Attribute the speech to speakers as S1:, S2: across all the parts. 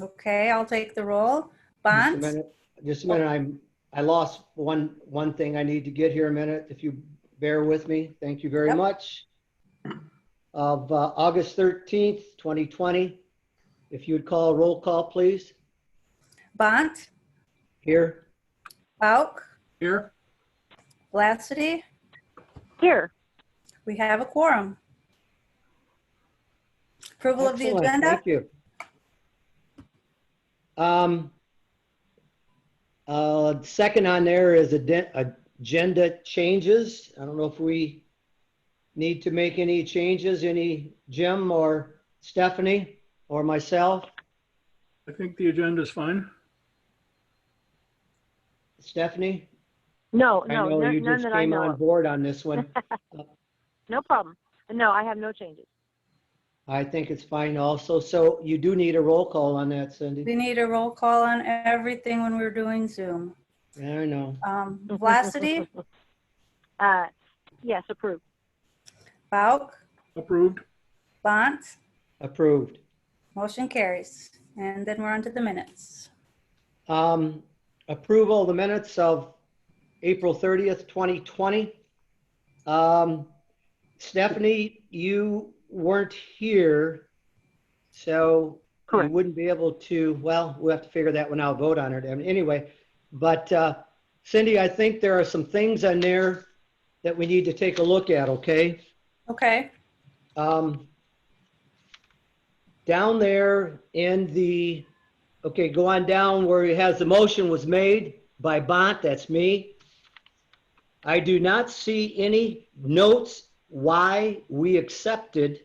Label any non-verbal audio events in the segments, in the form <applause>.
S1: Okay, I'll take the roll.
S2: Just a
S1: Bonds?
S2: minute. Just a minute, I'm, I lost one, one thing I need to get here a minute, if you bear with me, thank you very
S1: Yep.
S2: much. Of uh, August 13th, 2020, if you'd call roll call, please,
S1: Bont?
S2: here.
S1: Bauk?
S3: Here?
S1: Lassity?
S4: Here,
S1: We have a quorum. Approval of the
S2: Excellent,
S1: agenda?
S2: Thank you. Um, uh, second on there is aden- agenda changes. I don't know if we need to make any changes, any Jim or Stephanie or myself.
S3: I think the agenda is fine.
S2: Stephanie?
S4: no,
S2: I
S4: no,
S2: know
S4: no-
S2: you
S4: none
S2: just
S4: that I
S2: came
S4: know
S2: on
S4: of.
S2: board on this
S4: <laughs>
S2: one.
S4: No problem. No, I have no changes.
S2: I think it's fine also. So you do need a roll call on that, Cindy.
S1: We need a roll call on everything when we're doing Zoom.
S2: I know.
S1: Um, Lassity?
S4: Uh, yes, approved.
S1: Bauk?
S3: Approved.
S1: Bont?
S2: Approved.
S1: Motion carries. And then we're on to the minutes.
S2: Um, Approval of the minutes of April 30th, 2020. Um, Stephanie, you weren't here, so you
S4: Correct.
S2: wouldn't be able to, well, we'll have to figure that one out, vote on it And anyway. But uh, Cindy, I think there are some things on there that we need to take a look at, okay?
S1: Okay,
S2: Um, down there in the, okay, go on down where it has the motion was made by Bont, that's me. I do not see any notes why we accepted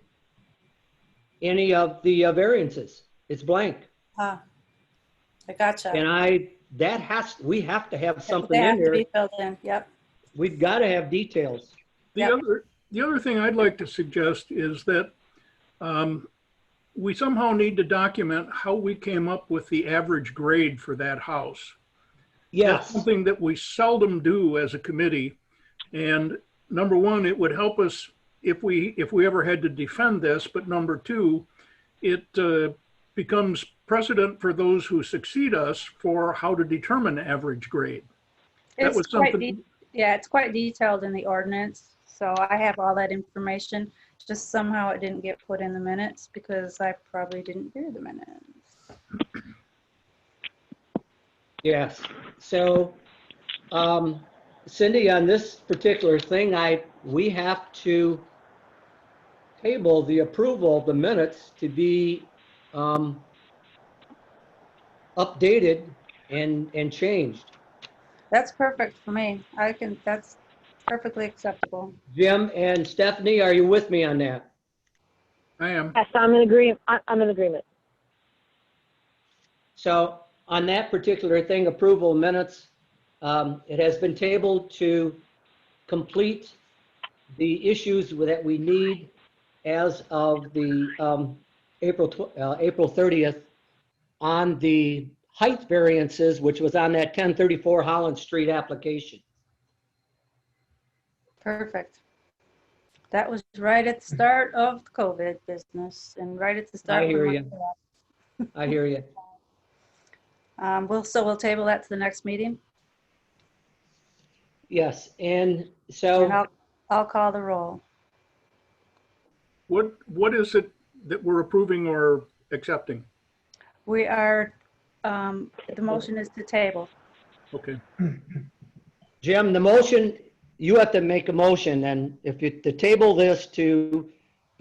S2: any of the uh, variances. It's blank.
S1: ah, I gotcha.
S2: And I, that has, we have to have something
S1: They
S2: in
S1: have to
S2: there.
S1: be filled in, yep.
S2: We've got to have details.
S3: The
S1: Yeah.
S3: other, the other thing I'd like to suggest is that um, we somehow need to document how we came up with the average grade for that house. That's
S2: Yes,
S3: something that we seldom do as a committee. And number one, it would help us if we, if we ever had to defend this, but number two, it uh, becomes precedent for those who succeed us for how to determine average grade. That
S1: It's
S3: was
S1: quite
S3: something-
S1: de- Yeah, it's quite detailed in the ordinance, so I have all that information. Just somehow it didn't get put in the minutes because I probably didn't hear the minutes.
S2: yes. So, um, Cindy, on this particular thing, I, we have to table the approval of the minutes to be, um, updated and, and changed.
S1: That's perfect for me. I can, that's perfectly acceptable.
S2: Jim and Stephanie, are you with me on that?
S3: I am.
S4: Yes, I'm in agree, I- I'm in agreement.
S2: So on that particular thing, approval minutes, um, it has been tabled to complete the issues that we need as of the um, April, tw- uh, April 30th on the height variances, which was on that 1034 Holland Street application.
S1: Perfect. That was right at the start of the COVID business and right at the start.
S2: I
S1: when
S2: hear
S1: my-
S2: you. I hear you.
S1: Um, we'll, so we'll table that to the next meeting
S2: Yes, and
S1: and
S2: so
S1: I'll, I'll call the roll.
S3: What, what is it that we're approving or accepting?
S1: We are, um, the motion is to table.
S3: Okay,
S2: Jim, the motion, you have to make a motion and if you, to table this to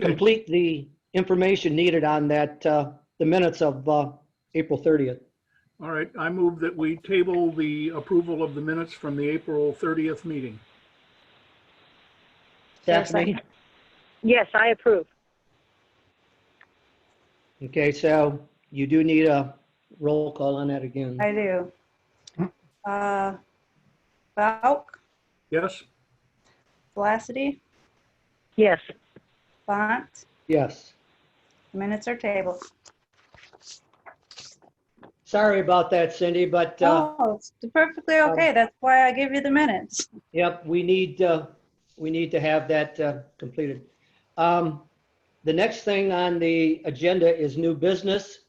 S2: complete the information needed on that, uh, the minutes of, uh, April 30th.
S3: all right. I move that we table the approval of the minutes from the April 30th meeting.
S1: Yes, I-
S2: Stephanie?
S4: Yes, I approve.
S2: Okay, so you do need a roll call on that again.
S1: I do. Uh, Bauk,
S3: Yes?
S1: Vlacity,
S4: Yes,
S1: Bont,
S2: Yes.
S1: minutes are tabled.
S2: Sorry about that, Cindy, but, uh,
S1: Oh, it's perfectly okay. That's why I give you the minutes.
S2: Yep, we need, uh, we need to have that uh, completed. Um, The next thing on the agenda is new business.